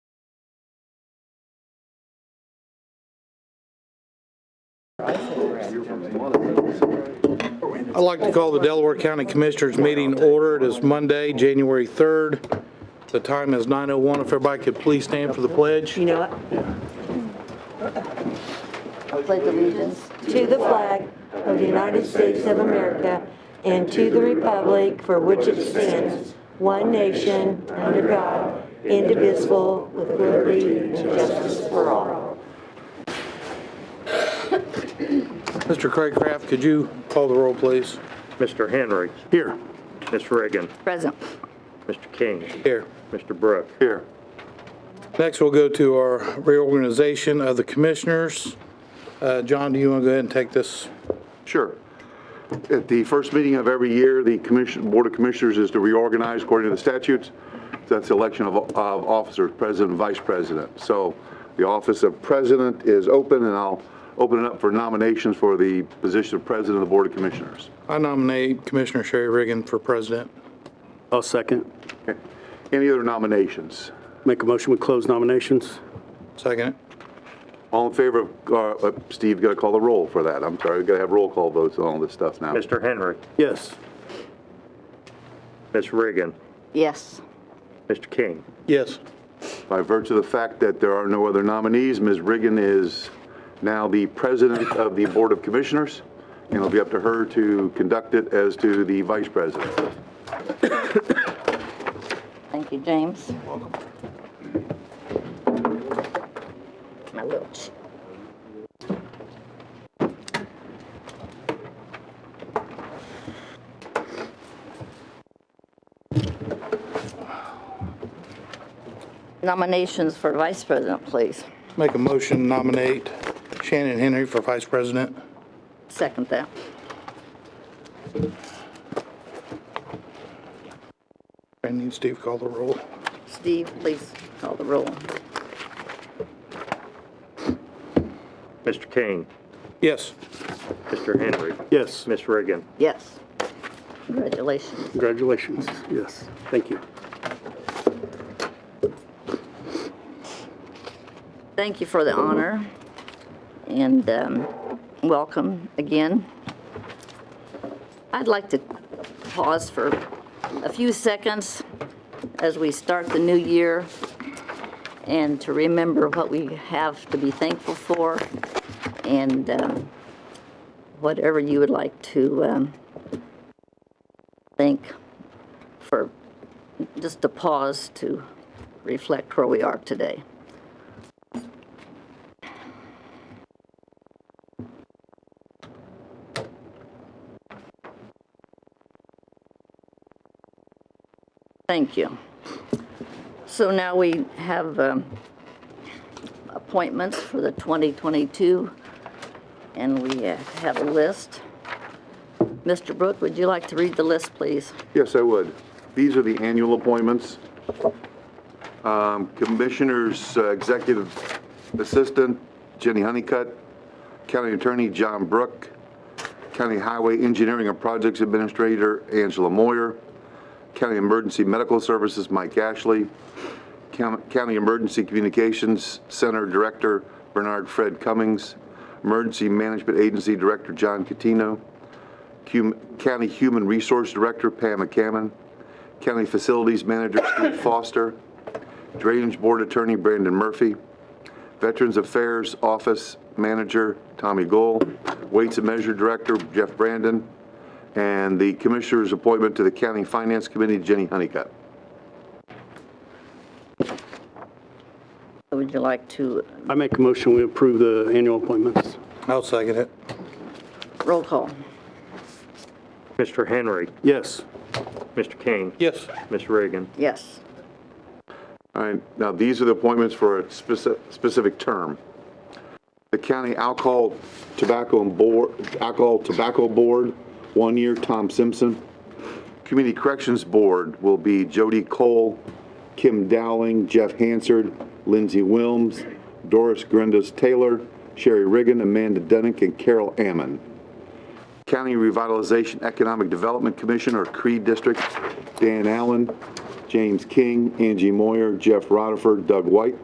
I'd like to call the Delaware County Commissioners meeting to order. It is Monday, January 3rd. The time is 9:01. If everybody could please stand for the pledge. You know what? Pledge allegiance to the flag of the United States of America and to the republic for which it stands, one nation, under God, indivisible, with liberty and justice for all. Mr. Craig Kraft, could you call the roll, please? Mr. Henry. Here. Ms. Reagan. Present. Mr. King. Here. Mr. Brook. Here. Next, we'll go to our reorganization of the commissioners. Uh, John, do you want to go ahead and take this? Sure. At the first meeting of every year, the commission, Board of Commissioners is to reorganize according to the statutes. That's the election of, of officers, president, and vice president. So the office of president is open, and I'll open it up for nominations for the position of president of the Board of Commissioners. I nominate Commissioner Sherry Riggin for president. I'll second. Any other nominations? Make a motion, we close nominations. Second. All in favor of, uh, uh, Steve, got to call the roll for that. I'm sorry, we got to have roll call votes on all this stuff now. Mr. Henry. Yes. Ms. Reagan. Yes. Mr. King. Yes. By virtue of the fact that there are no other nominees, Ms. Riggin is now the president of the Board of Commissioners, and it'll be up to her to conduct it as to the vice president. Thank you, James. My little ch- Nominations for vice president, please. Make a motion to nominate Shannon Henry for vice president. Second that. And need Steve call the roll. Steve, please call the roll. Mr. King. Yes. Mr. Henry. Yes. Ms. Reagan. Yes. Congratulations. Congratulations. Yes. Thank you. Thank you for the honor and um, welcome again. I'd like to pause for a few seconds as we start the new year and to remember what we have to be thankful for and um, whatever you would like to um, thank for, just a pause to reflect where we are today. Thank you. So now we have um, appointments for the 2022, and we uh, have a list. Mr. Brook, would you like to read the list, please? Yes, I would. These are the annual appointments. Um, Commissioners, uh, Executive Assistant Jenny Honeycutt, County Attorney John Brook, County Highway Engineering and Projects Administrator Angela Moyer, County Emergency Medical Services Mike Ashley, Coun- County Emergency Communications Center Director Bernard Fred Cummings, Emergency Management Agency Director John Catino, Hum- County Human Resource Director Pam McCammon, County Facilities Manager Steve Foster, Drainage Board Attorney Brandon Murphy, Veterans Affairs Office Manager Tommy Goal, Weights and Measure Director Jeff Brandon, and the Commissioner's appointment to the County Finance Committee Jenny Honeycutt. Would you like to I make a motion, we approve the annual appointments. I'll second it. roll call? Mr. Henry. Yes. Mr. King. Yes. Ms. Reagan. Yes. All right, now these are the appointments for a speci- specific term. The County Alcohol Tobacco and Board, Alcohol Tobacco Board, one year, Tom Simpson. Community Corrections Board will be Jody Cole, Kim Dowling, Jeff Hansard, Lindsey Wilms, Doris Grendas Taylor, Sherry Riggin, Amanda Dunick, and Carol Ammon. County Revitalization Economic Development Commission, or CREE District, Dan Allen, James King, Angie Moyer, Jeff Rutherford, Doug White.